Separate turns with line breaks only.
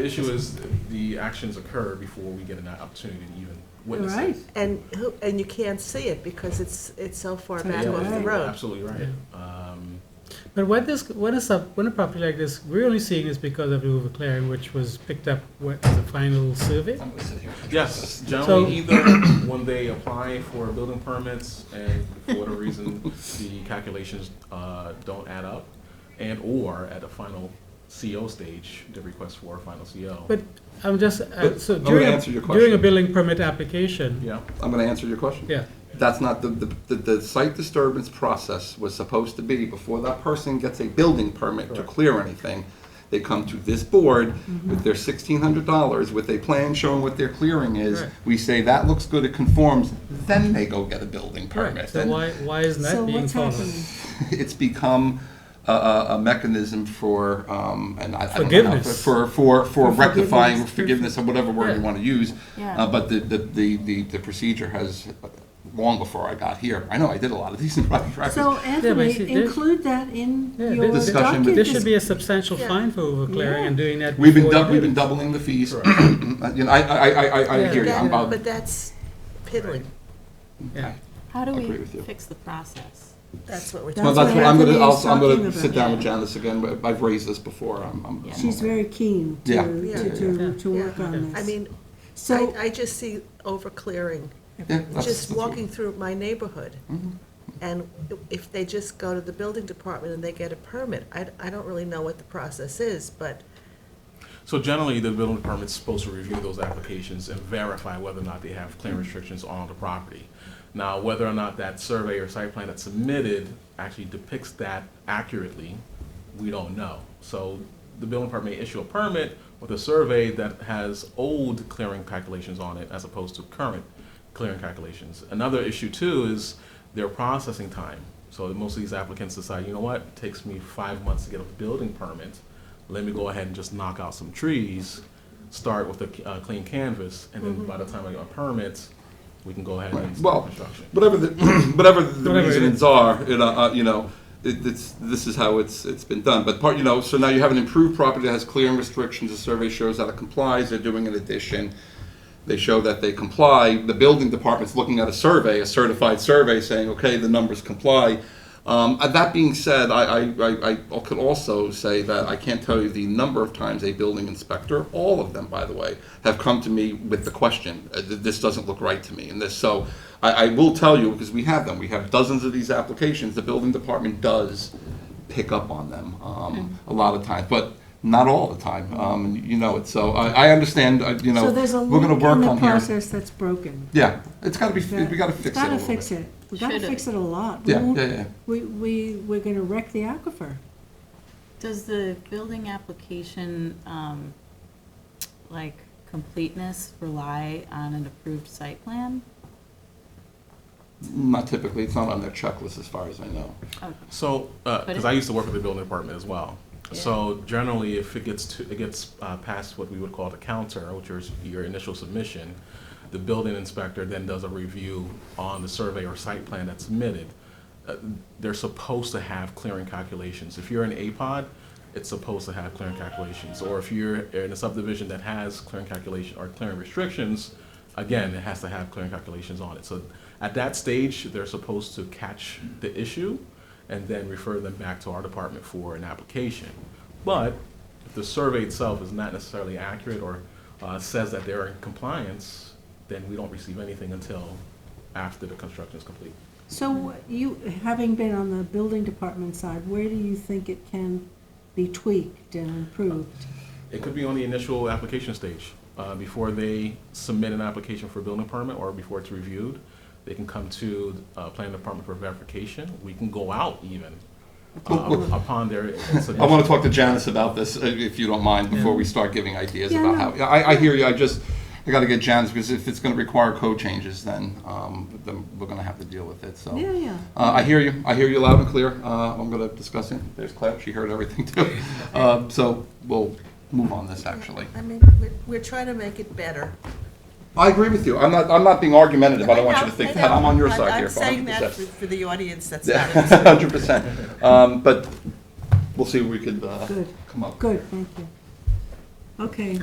The issue is the actions occur before we get an opportunity to even witness
Right.
it.
And who, and you can't see it because it's, it's so far
It's
back
Yeah,
on
off the
the
you're
road.
Absolutely right. Um,
But when this, when a sub, when a property like this, we're only seeing this because of the overclearing, which was picked up with the final survey.
Yes, generally either when they apply for building permits and for whatever reason, the calculations uh, don't add up, and or at the final CO stage, the request for a final CO.
But I'm just, uh,
But
so
I'm gonna
during, a-
answer your
during a
question.
building permit application,
Yeah,
I'm going to answer your question.
yeah,
That's not, the, the, the- the site disturbance process was supposed to be, before that person gets a building permit to
Correct.
clear anything, they come to this board
Mm-hmm.
with their sixteen hundred dollars, with a plan showing what their clearing is.
Right.
We say, that looks good, it conforms, then they go get a building
right,
permit.
so
And
why, why isn't that being followed?
It's become a, a, a mechanism for, um, and I, I don't know.
Forgiveness.
For, for,
For
for rectifying,
forgiveness.
forgiveness, or whatever word you
Yeah.
want to use.
Yeah.
Uh, but the, the, the, the, the procedure has, uh, long before I got here, I know I did a lot of these in private practice.
So
see,
Anthony,
there-
include that in
Yeah,
your
this-
Discussion.
document.
It
There should be a substantial
Yeah.
fine for overclearing and doing that
We've been,
before
dou-
you
we've
do
been
it.
doubling the fees. Uh,
Correct.
You know, I, I, I, I- I
Yeah.
hear you, I'm
That-
about,
But that's piddling,
Yeah.
How do
I agree
we
with you.
fix the process?
that's what we're talking
well,
That's
that's
what
what, I'm gonna,
Anthony is
also, I'm gonna
talking
sit
about.
down with Janice again, but I've raised this before, I'm, I'm. I'm
She's
okay.
very keen
Yeah.
to,
Yeah.
to,
Yeah.
do- to work
Yeah.
on
I
this.
mean, I,
So,
I just see overclearing,
Yeah, that's-
just
that's-
walking through my neighborhood.
Mhm.
And if they just go to the building department and they get a permit, I, I don't really know what the process is, but
so generally, the building permit's supposed to review those applications and verify whether or not they have clear restrictions on the property. Now, whether or not that survey or site plan that's submitted actually depicts that accurately, we don't know. So the building permit may issue a permit with a survey that has old clearing calculations on it as opposed to current clearing calculations. Another issue too is their processing time. So most of these applicants decide, you know what, it takes me five months to get a building permit. Let me go ahead and just knock out some trees, start with a uh, clean canvas, and
Mm-hmm.
then by the time I get my permits, we can go ahead and
Right.
start
Well,
construction.
whatever the whatever the
Whatever it
reasons are, you know, uh, you know, it, it's this is how it's it's been done. But part, you know, so now you have an improved property that has clearing restrictions. The survey shows that it complies. They're doing an addition. They show that they comply. The building department's looking at a survey, a certified survey, saying, okay, the numbers comply. Um, uh, that being said, I, I, I, I could also say that I can't tell you the number of times a building inspector, all of them, by the way, have come to me with the question, uh, th- this doesn't look right to me, and this, so I, I will tell you, because we have them, we have dozens of these applications, the building department does pick up on them,
Mm.
um, a lot of times, but not all the time, um, you know it, so I, I understand, uh, you know,
so there's a
we're gonna
link
work
in the
on here.
process that's broken.
Yeah, it's gotta be,
That-
we gotta fix it a little
Gotta
bit.
fix it. We gotta
Should it?
fix it a lot. We
Yeah,
won't-
yeah, yeah.
We, we, we're gonna wreck the aquifer.
Does the building application, um, like completeness rely on an approved site plan?
Not typically, it's not on their checklist as far as I know.
Okay.
So,
But
because
it-
I used to work with the building department as well.
Yeah.
So generally, if it gets to, it gets uh, past what we would call the counter, which is your initial submission, the building inspector then does a review on the survey or site plan that's submitted. Uh, They're supposed to have clearing calculations. If you're an APOD, it's supposed to have clearing calculations. Or if you're in a subdivision that has clearing calculation or clearing restrictions, again, it has to have clearing calculations on it. So at that stage, they're supposed to catch the issue and then refer them back to our department for an application. But if the survey itself is not necessarily accurate or uh, says that they're in compliance, then we don't receive anything until after the construction is complete.
So you, having been on the building department side, where do you think it can be tweaked and improved?
It could be on the initial application stage. Uh, Before they submit an application for a building permit or before it's reviewed, they can come to uh, planning department for verification. We can go out even uh, upon their
I want
submission.
to talk to Janice about this, uh, if you don't mind, before we start giving ideas
Yeah,
about
no.
how, yeah, I, I hear you, I just, I gotta get Janice, because if it's gonna require code changes, then, um, then we're gonna have to deal with it, so.
Yeah, yeah.
Uh, I hear you, I hear you loud and clear, uh, I'm gonna discuss it, there's Claire, she heard everything too. Um, so, we'll move on this, actually.
I mean, we're, we're trying to make it better.
I agree with you, I'm not, I'm not being argumentative, I don't want you to think that, I'm on your side here,
I'm saying that
100%.
for for the audience that's not in the
Yeah, hundred percent, um, but we'll see what we could, uh,
Good.
come up with.
Good, thank you. Okay.